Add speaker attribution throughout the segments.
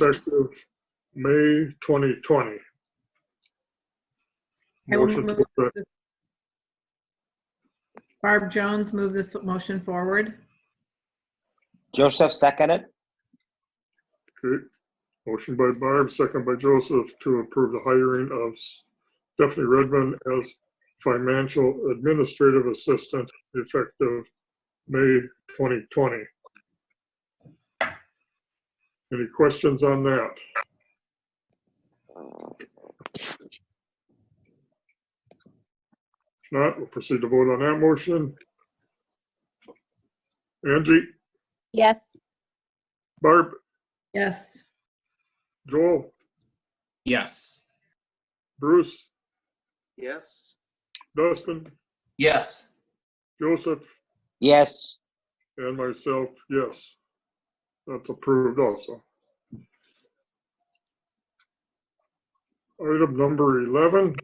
Speaker 1: effective May 2020.
Speaker 2: I will
Speaker 1: Motion
Speaker 2: move
Speaker 1: to approve.
Speaker 2: this- Barb Jones, move this motion forward.
Speaker 3: Joseph seconded.
Speaker 1: Okay. Motion by Barb, second by Joseph to approve the hiring of Stephanie Redmond as financial administrative assistant effective May 2020. Any questions on that? If not, we'll proceed to vote on that motion. Angie,
Speaker 4: Yes.
Speaker 1: Barb,
Speaker 2: Yes.
Speaker 1: Joel,
Speaker 5: Yes.
Speaker 1: Bruce,
Speaker 6: yes,
Speaker 1: Dustin,
Speaker 5: Yes.
Speaker 1: Joseph,
Speaker 3: Yes,
Speaker 1: and myself, yes. That's approved also. Item number 11.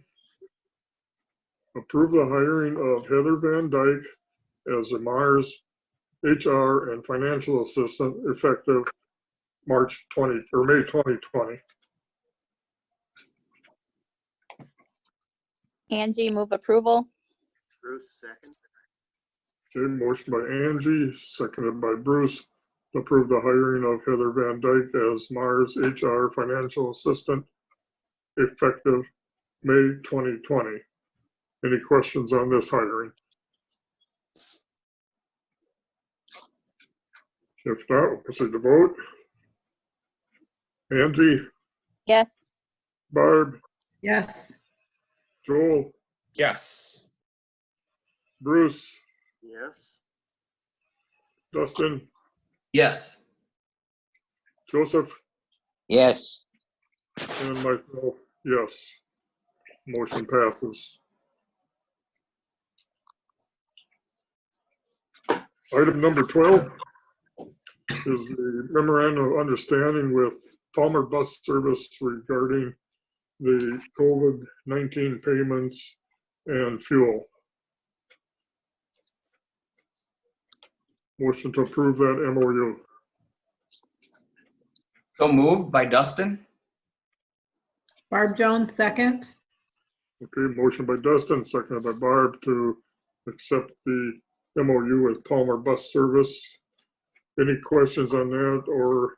Speaker 1: Approve the hiring of Heather Van Dyke as a Mars HR and Financial Assistant effective March 20, or May 2020.
Speaker 4: Angie, move approval.
Speaker 6: Ruth second,
Speaker 1: Okay, motion by Angie, seconded by Bruce, to approve the hiring of Heather Van Dyke as Mars HR Financial Assistant effective May 2020. Any questions on this hiring? If not, we'll proceed to vote. Angie,
Speaker 4: Yes.
Speaker 1: Barb,
Speaker 2: Yes.
Speaker 1: Joel,
Speaker 5: Yes.
Speaker 1: Bruce,
Speaker 6: yes,
Speaker 1: Dustin,
Speaker 5: Yes.
Speaker 1: Joseph,
Speaker 3: yes,
Speaker 1: And myself, yes. Motion passes. Item number 12 is the memorandum of understanding with Palmer Bus Service regarding the COVID-19 payments and fuel. Motion to approve that MOU.
Speaker 5: So moved by Dustin?
Speaker 2: Barb Jones, second.
Speaker 1: Okay, motion by Dustin, seconded by Barb to accept the MOU with Palmer Bus Service. Any questions on that or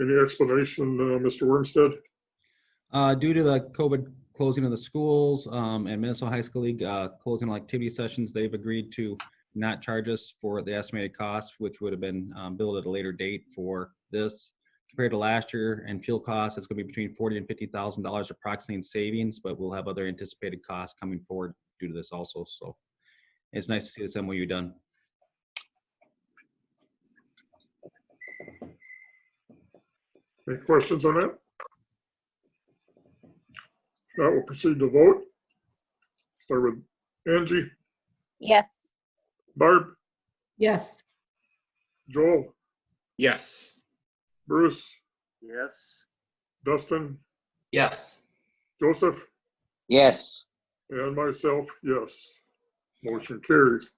Speaker 1: any explanation, uh, Mr. Wormstead?
Speaker 7: Uh, due to the COVID closing of the schools um, and Minnesota High School League uh, closing all activity sessions, they've agreed to not charge us for the estimated cost, which would have been um, billed at a later date for this. Compared to last year and fuel costs, it's going to be between forty and fifty thousand dollars approximately in savings, but we'll have other anticipated costs coming forward due to this also. So it's nice to see this MOU done.
Speaker 1: Any questions on that? Now we'll proceed to vote. Start with Angie,
Speaker 4: Yes.
Speaker 1: Barb,
Speaker 2: Yes.
Speaker 1: Joel,
Speaker 5: Yes.
Speaker 1: Bruce,
Speaker 6: yes,
Speaker 1: Dustin,
Speaker 5: Yes.
Speaker 1: Joseph,
Speaker 3: yes,
Speaker 1: and myself, yes. Motion carries.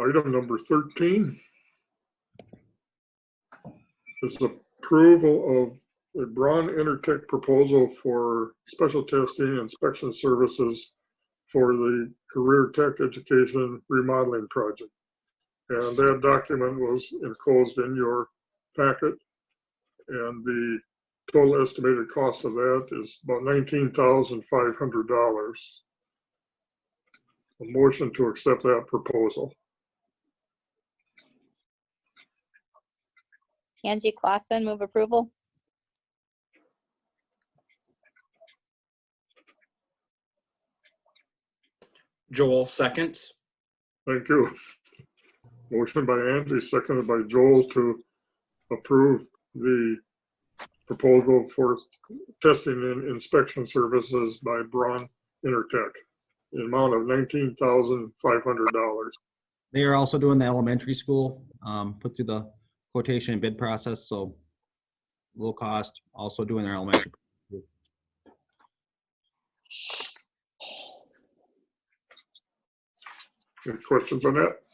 Speaker 1: Item number 13 is approval of a Braun Intertek proposal for special testing and inspection services for the Career Tech Education Remodeling Project. And that document was enclosed in your packet. And the total estimated cost of that is about $19,500. A motion to accept that proposal.
Speaker 4: Angie Clausen, move approval.
Speaker 5: Joel seconds?
Speaker 1: Thank you. Motion by Angie, seconded by Joel to approve the proposal for testing and inspection services by Braun Intertech in amount of $19,500.
Speaker 7: They are also doing the elementary school, um, put through the quotation and bid process, so low cost, also doing their elementary
Speaker 1: Any questions on that?